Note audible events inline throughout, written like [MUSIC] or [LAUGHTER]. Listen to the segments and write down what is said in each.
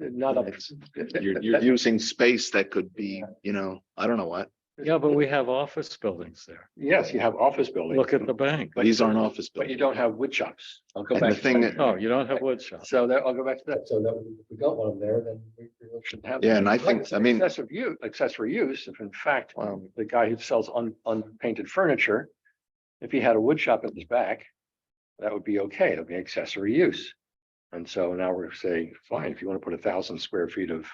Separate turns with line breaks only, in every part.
not up. [LAUGHS]
You're, you're using space that could be, you know, I don't know what.
Yeah, but we have office buildings there.
Yes, you have office buildings.
Look at the bank.
But
These
you
aren't
don't-
office
But you don't
buildings.
have wood shops. I'll go
And the
back. to
thing
that.
Oh, you don't have wood shops.
So that, I'll go back to that, so that if we don't want them there, then we really shouldn't have. them.
Yeah, and I think-
It's
I mean-
Excessive use, accessory use, if in fact,
Wow.
the guy who sells un, unpainted furniture, if he had a wood shop in his back, that would be okay, it'd be accessory use. And so now we're saying, fine, if you want to put a thousand square feet of,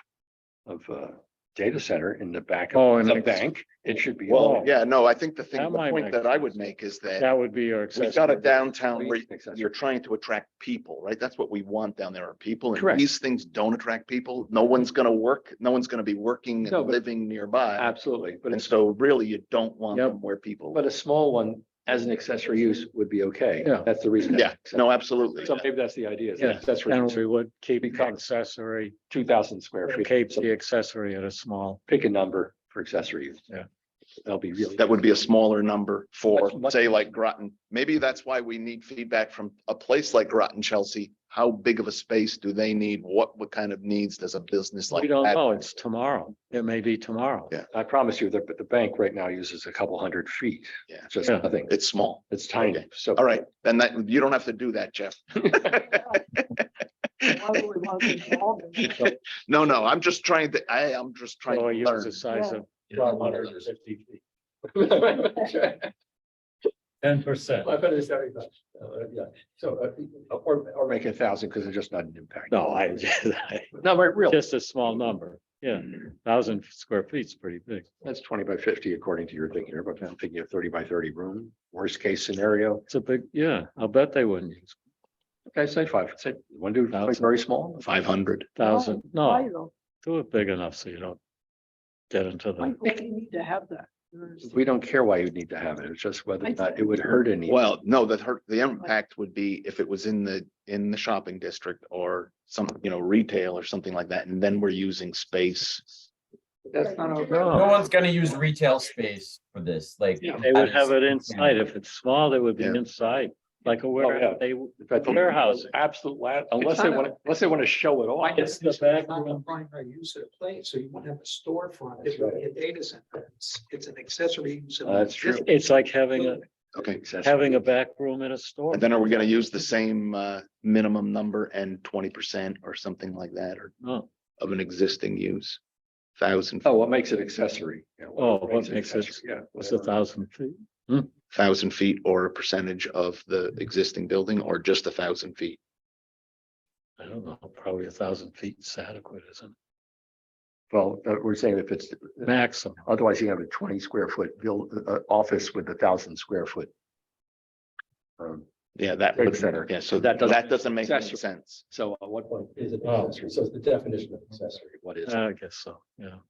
of, uh, data center in the back
Oh,
of
and
the
it's-
bank, it should be.
Well,
allowed.
yeah, no, I think the
That
thing, the
might
point
make
that I
sense.
would make is that
That would be your
we've got a
accessory.
downtown where
Accessory.
you're trying to attract people, right? That's what we want down there are people.
Correct.
And these things don't attract people. No one's gonna work, no one's gonna be working
No,
and
but-
living nearby.
Absolutely, but
And
it's,
so really you don't want
Yep.
them where people,
but a small one as an accessory use would be okay.
Yeah.
That's the reason.
yeah, no, absolutely.
So maybe that's the idea, is
Yeah.
accessory,
And we would keep the
Because-
accessory,
two thousand square feet.
keep
So
the accessory at a small.
pick a number for accessory use.
Yeah.
That'll be really.
That would be a smaller number for,
Much- much-
say, like Groton. Maybe that's why we need feedback from a place like Groton, Chelsea. How big of a space do they need? What, what kind of needs does a business like?
We don't
that-
know. It's tomorrow. It may be tomorrow.
Yeah.
I promise you, the, the bank right now uses a couple hundred feet.
Yeah.
Just
Yeah.
nothing.
It's small.
It's tiny,
Okay.
so.
All right, then that, you don't have to do that, Jeff. [LAUGHS]
Why would we want to involve them?
No, no, I'm just trying to, I, I'm just trying to
So you use
learn.
the size of.
[LAUGHS] Ten
percent.
I bet it's seventy-five. Uh, Yeah, so, uh, or, or make a thousand because it's just not an impact.
No,
[LAUGHS]
I,
No, but really,
just a small number. Yeah,
Mm-hmm.
thousand square feet's pretty big.
that's twenty by fifty according to your thinking, here, but I'm thinking of thirty by thirty room, worst case scenario.
It's a big, yeah, I'll bet they wouldn't use
Okay, say five, say, one do like
Thousand.
very small,
Five hundred.
thousand.
Why
No,
though?
do it big enough so you don't get into the.
Why would we need to have that? There's-
we don't care why you need to have it, it's just whether or
I
not
see.
it would hurt any.
Well, no, the hurt, the impact would be if it was in the, in the shopping district or some, you know, retail or something like that, and then we're using space.
That's not okay.
No.
No one's gonna use retail space for this, like.
Yeah.
They would
that
have
is-
it inside. If it's small, they would be
Yeah.
inside, like a
Oh, yeah.
warehouse. They, w-
But the
Warehouse.
Absolute, la- unless they
not a-
want, unless they want to show it off.
It's the back
Not the
room.
primary use of the place, so you won't have a storefront,
That's
it would be a data center, it's, it's an accessory use. of
Uh, that's true.
existing
it's like having a,
building.
Okay,
having a back room in a store.
and then are we gonna use the same, uh, minimum number and twenty percent or something like that, or
No.
of an existing use? Thousand,
Oh, what makes it accessory? Yeah,
Oh, what makes it-
accessory, Yeah.
It's a
whatever.
thousand feet.
thousand feet or a percentage of the existing building or just a thousand feet?
I don't know, probably a thousand feet is adequate, isn't
Well, uh, we're saying if it's,
it? Maximum.
otherwise you have a twenty square foot build, uh, office with a thousand square foot. Um,
Yeah, that,
Right,
would-
center.
yeah, so
That
that,
doesn't-
that doesn't make any
Accessory.
sense.
so at what point is it
Oh. Uh,
accessory? So it's the definition of accessory, what is it?
I guess so, yeah.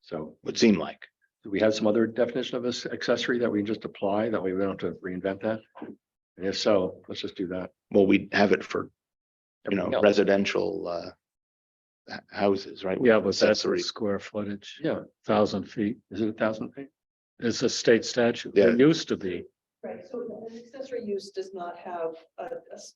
So
Would seem like,
do we have some other definition of this accessory that we can just apply? That way we don't have to reinvent that? And if so, let's just do that.
well, we have it for, you know,
Everything else.
residential, uh. h- Houses, right? with
Yeah, but that's the
accessories.
square footage,
Yeah,
thousand feet.
is it a thousand feet?
It's a state statute. It used to be.
Right, so an accessory use does not have a, a s-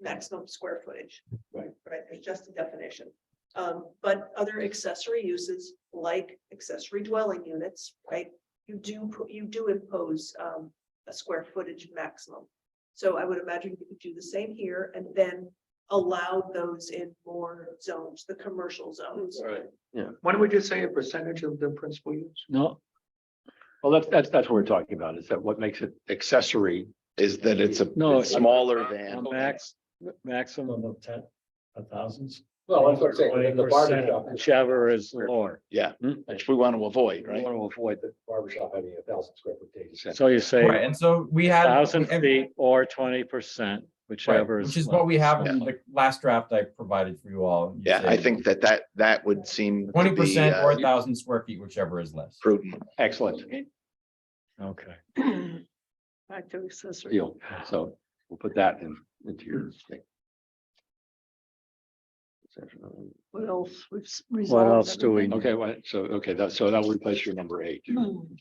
maximum square footage.
Right.
Right, it's just a definition. Um, but other accessory uses like accessory dwelling units, right? You do, pu- you do impose, um, a square footage maximum. So I would imagine you could do the same here and then allow those in more zones, the commercial zones.
Right.
Why don't we just say a percentage of the principal use?
No,
Well, that's, that's, that's what we're talking about, is that what makes it accessory?
Is that it's a
No,
it's smaller
a
than,
max, maximum of ten, a thousands.
Well, that's what I'm saying, the barber shop.
Whichever is lower.
yeah,
Hmm.
which we want to avoid,
We
right?
want to avoid the barber shop having a thousand square foot data center.
So you say.
Right, and so we had.
Thousand
ev-
feet or twenty percent,
Right,
whichever.
which is what we have in
Yeah.
the last draft I provided for you all. You
Yeah, I
said
think that that, that would seem. to
Twenty
be,
percent
uh,
or a thousand square feet, whichever is less.
Prudent,
Excellent
Okay,
Back to accessory.
deal. So we'll put that in, into your thing.
What else? We've s-
what
resolved
else do we, need?
Okay, well, so, okay, that, so that'll replace your number eight.
everything.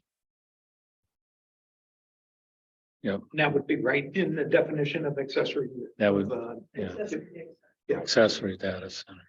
And That would be right in the definition of accessory. use
that
of,
would
uh,
yeah.
accessory use.
accessory data center,